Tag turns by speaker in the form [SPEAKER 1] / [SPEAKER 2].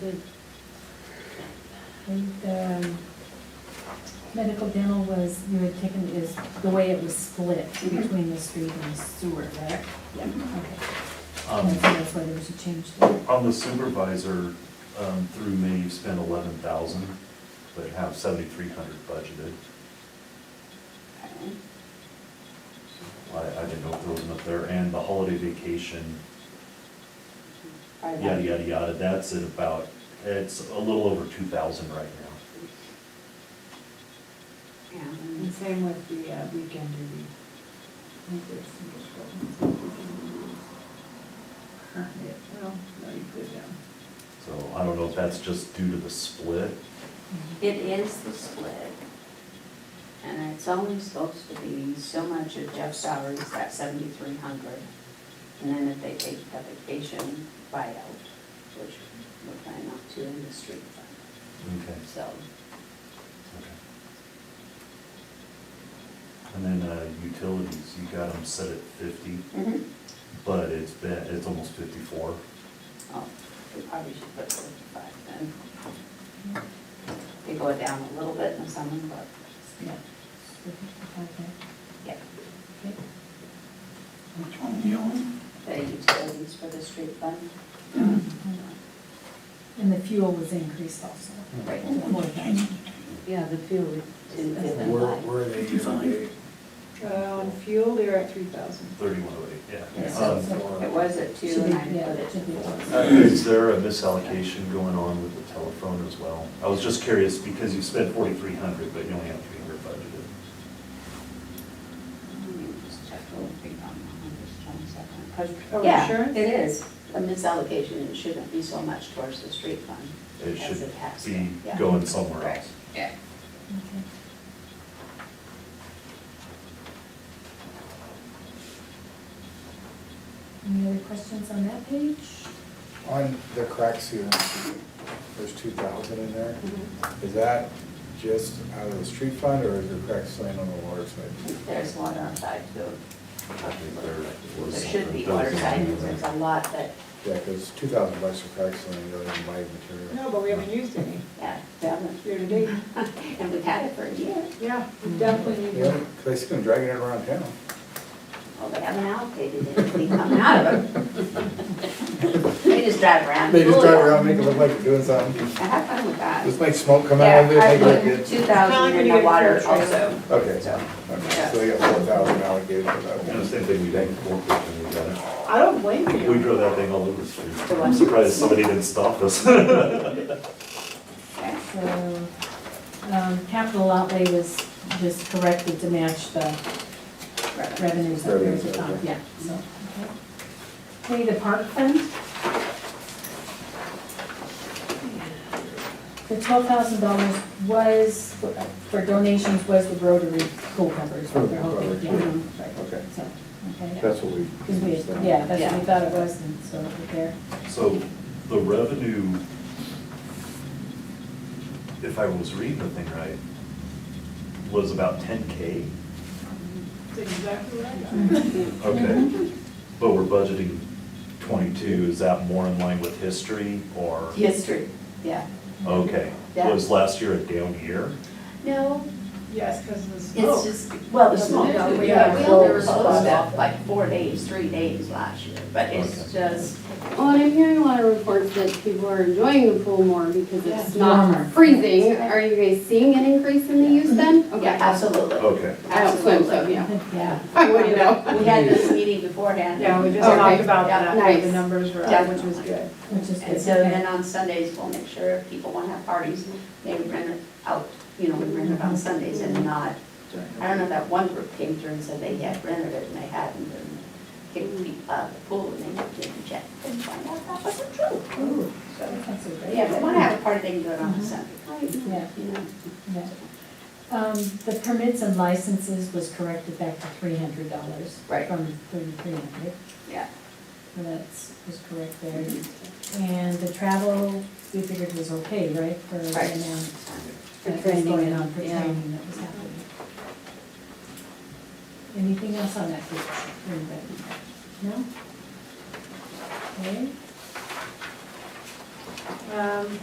[SPEAKER 1] good. And, um, medical dental was, you had taken, is the way it was split
[SPEAKER 2] Mm-hmm.
[SPEAKER 1] between the street and the sewer, right? Yeah. Okay,
[SPEAKER 3] Um,
[SPEAKER 1] And so that's why there was a change there.
[SPEAKER 3] On the supervisor, um, through me, you've spent eleven thousand, but have seventy-three hundred budgeted. I, I didn't know if there was enough there, and the holiday vacation,
[SPEAKER 4] I like-
[SPEAKER 3] yada, yada, yada, that's at about, it's a little over two thousand right now.
[SPEAKER 4] Yeah, and the same with the uh, weekend duty. I think there's some discrepancy. Not yet, well, no, you um, put it down.
[SPEAKER 3] So I don't know if that's just due to the split,
[SPEAKER 2] It is the split. And it's only supposed to be so much of Jeff's salary is that seventy-three hundred. And then if they take the vacation buyout, which we're planning not to in the street fund,
[SPEAKER 3] okay.
[SPEAKER 2] so.
[SPEAKER 3] okay. And then, uh, utilities, you got them set at fifty,
[SPEAKER 5] Mm-hmm.
[SPEAKER 2] mhm.
[SPEAKER 3] but it's been, it's almost fifty-four.
[SPEAKER 2] Oh, we probably should put fifty-five then. They go down a little bit in the summer, but,
[SPEAKER 1] Yeah. So, okay,
[SPEAKER 2] yeah.
[SPEAKER 1] okay.
[SPEAKER 6] Which one you on?
[SPEAKER 2] The utilities for the street fund.
[SPEAKER 1] And the fuel was increased also.
[SPEAKER 2] Right.
[SPEAKER 5] Yeah, the fuel.
[SPEAKER 2] Didn't give them
[SPEAKER 6] Where,
[SPEAKER 2] life.
[SPEAKER 6] where are they usually?
[SPEAKER 4] Uh, on fuel, they're at three thousand.
[SPEAKER 3] Thirty-one oh eight,
[SPEAKER 2] Yeah.
[SPEAKER 3] yeah.
[SPEAKER 1] So,
[SPEAKER 3] Um,
[SPEAKER 1] so-
[SPEAKER 2] It was at two
[SPEAKER 1] Should be-
[SPEAKER 2] and I put
[SPEAKER 1] yeah,
[SPEAKER 2] it
[SPEAKER 1] should be
[SPEAKER 2] at four.
[SPEAKER 1] four.
[SPEAKER 3] uh, Is there a misallocation going on with the telephone as well? I was just curious, because you spent forty-three hundred, but you only have three hundred budgeted.
[SPEAKER 4] Oh,
[SPEAKER 2] Yeah,
[SPEAKER 4] insurance?
[SPEAKER 2] it is. A misallocation, it shouldn't be so much towards the street fund.
[SPEAKER 3] It
[SPEAKER 2] as
[SPEAKER 3] should
[SPEAKER 2] has
[SPEAKER 3] be
[SPEAKER 2] been. Yeah.
[SPEAKER 3] going somewhere
[SPEAKER 2] Right,
[SPEAKER 3] else.
[SPEAKER 2] yeah.
[SPEAKER 1] Okay. Any other questions on that page?
[SPEAKER 6] On the crack sealant, there's two thousand in there.
[SPEAKER 4] Mm-hmm.
[SPEAKER 6] Is that just out of the street fund or is there crack sealant on the water side?
[SPEAKER 2] There's water on side too.
[SPEAKER 3] I think there was
[SPEAKER 2] There should be
[SPEAKER 3] something-
[SPEAKER 2] water side,
[SPEAKER 3] there was
[SPEAKER 2] because there's a lot that,
[SPEAKER 6] Yeah, because two thousand bucks for crack sealant, you don't even buy material.
[SPEAKER 4] No, but we haven't used any
[SPEAKER 2] yeah, down
[SPEAKER 4] year to date.
[SPEAKER 2] there. And we've had it for a year.
[SPEAKER 4] Yeah, we definitely need
[SPEAKER 6] Yeah,
[SPEAKER 4] to.
[SPEAKER 6] 'cause I see them dragging it around town.
[SPEAKER 2] Well, they haven't allocated anything coming out of it. They just drive around.
[SPEAKER 6] They just
[SPEAKER 2] Cool.
[SPEAKER 6] drive around, make it look like they're doing something.
[SPEAKER 2] I have fun with that.
[SPEAKER 6] Just make smoke come out of it, make it look
[SPEAKER 2] Yeah, I put
[SPEAKER 6] good.
[SPEAKER 2] two thousand in the water also.
[SPEAKER 6] Okay.
[SPEAKER 2] So,
[SPEAKER 6] Okay, so they got four thousand allocated for that
[SPEAKER 3] And the
[SPEAKER 6] one.
[SPEAKER 3] same thing we did before, when we got
[SPEAKER 4] I don't blame
[SPEAKER 3] it. we
[SPEAKER 4] you.
[SPEAKER 3] drove that thing all over the street.
[SPEAKER 2] The
[SPEAKER 3] I'm
[SPEAKER 2] one-
[SPEAKER 3] surprised somebody didn't stop us.
[SPEAKER 2] okay.
[SPEAKER 1] So, um, capital outlay was just corrected to match the revenues that we were
[SPEAKER 6] Revenues, okay.
[SPEAKER 1] talking, yeah, so, okay. Okay, the park fund. The twelve thousand dollars was, for donations was the Rotary Pool Covers, what they're hoping, yeah,
[SPEAKER 6] Rotary,
[SPEAKER 1] right,
[SPEAKER 6] Oh, Okay,
[SPEAKER 1] so, okay.
[SPEAKER 6] that's what we.
[SPEAKER 1] 'Cause we, yeah, that's what we thought it was, and so, there.
[SPEAKER 3] So the revenue, if I was reading the thing right, was about ten K?
[SPEAKER 4] That's exactly right.
[SPEAKER 3] Okay. But we're budgeting twenty-two, is that more in line with history or?
[SPEAKER 2] History, yeah.
[SPEAKER 3] Okay.
[SPEAKER 2] Yeah.
[SPEAKER 3] Was last year a down year?
[SPEAKER 2] No,
[SPEAKER 4] Yes, because of the
[SPEAKER 2] it's
[SPEAKER 4] smoke.
[SPEAKER 2] just, well, the smoke,
[SPEAKER 4] Yeah,
[SPEAKER 2] we
[SPEAKER 4] Oh. yeah.
[SPEAKER 2] we only were supposed to have like four days, three days last year, but it's
[SPEAKER 3] Okay.
[SPEAKER 2] just,
[SPEAKER 5] Well, and I'm hearing a lot of reports that people are enjoying the pool more because it's
[SPEAKER 1] Yeah. Warmer.
[SPEAKER 5] not freezing. Are you guys seeing an increase in the use then? Okay.
[SPEAKER 2] yeah,
[SPEAKER 6] Oh.
[SPEAKER 2] absolutely.
[SPEAKER 3] Okay.
[SPEAKER 5] I don't swim, so, yeah.
[SPEAKER 2] Yeah.
[SPEAKER 5] I wouldn't know.
[SPEAKER 2] We had this meeting beforehand.
[SPEAKER 4] Yeah, we just
[SPEAKER 5] Okay.
[SPEAKER 4] talked about
[SPEAKER 2] Yeah,
[SPEAKER 4] that, what the
[SPEAKER 5] nice.
[SPEAKER 4] numbers were,
[SPEAKER 2] Yeah.
[SPEAKER 4] up, which was good.
[SPEAKER 1] Which is
[SPEAKER 2] And
[SPEAKER 1] good,
[SPEAKER 2] so
[SPEAKER 1] okay.
[SPEAKER 2] then on Sundays, we'll make sure if people want to have parties, they rent it out, you know, we rent it on Sundays and not I don't know, that one group came through and said they had rented it and they hadn't, and kicked me out of the pool, and they didn't check, and find out that wasn't true. So,
[SPEAKER 1] That's a great
[SPEAKER 2] yeah, if they wanna
[SPEAKER 1] idea.
[SPEAKER 2] have a party, they can do it on a Sunday night,
[SPEAKER 1] Yeah.
[SPEAKER 2] you know.
[SPEAKER 1] Yeah. Um, the permits and licenses was corrected back to three hundred dollars.
[SPEAKER 2] Right.
[SPEAKER 1] From thirty-three hundred,
[SPEAKER 2] Yeah.
[SPEAKER 1] so that's, was correct there.
[SPEAKER 2] Mm-hmm.
[SPEAKER 1] And the travel, we figured was okay, right, for the
[SPEAKER 2] Right.
[SPEAKER 1] amount
[SPEAKER 5] For
[SPEAKER 1] that was going
[SPEAKER 5] training,
[SPEAKER 1] on for
[SPEAKER 5] yeah.
[SPEAKER 1] training that was happening. Anything else on that page, anybody? No? Okay.
[SPEAKER 4] Um,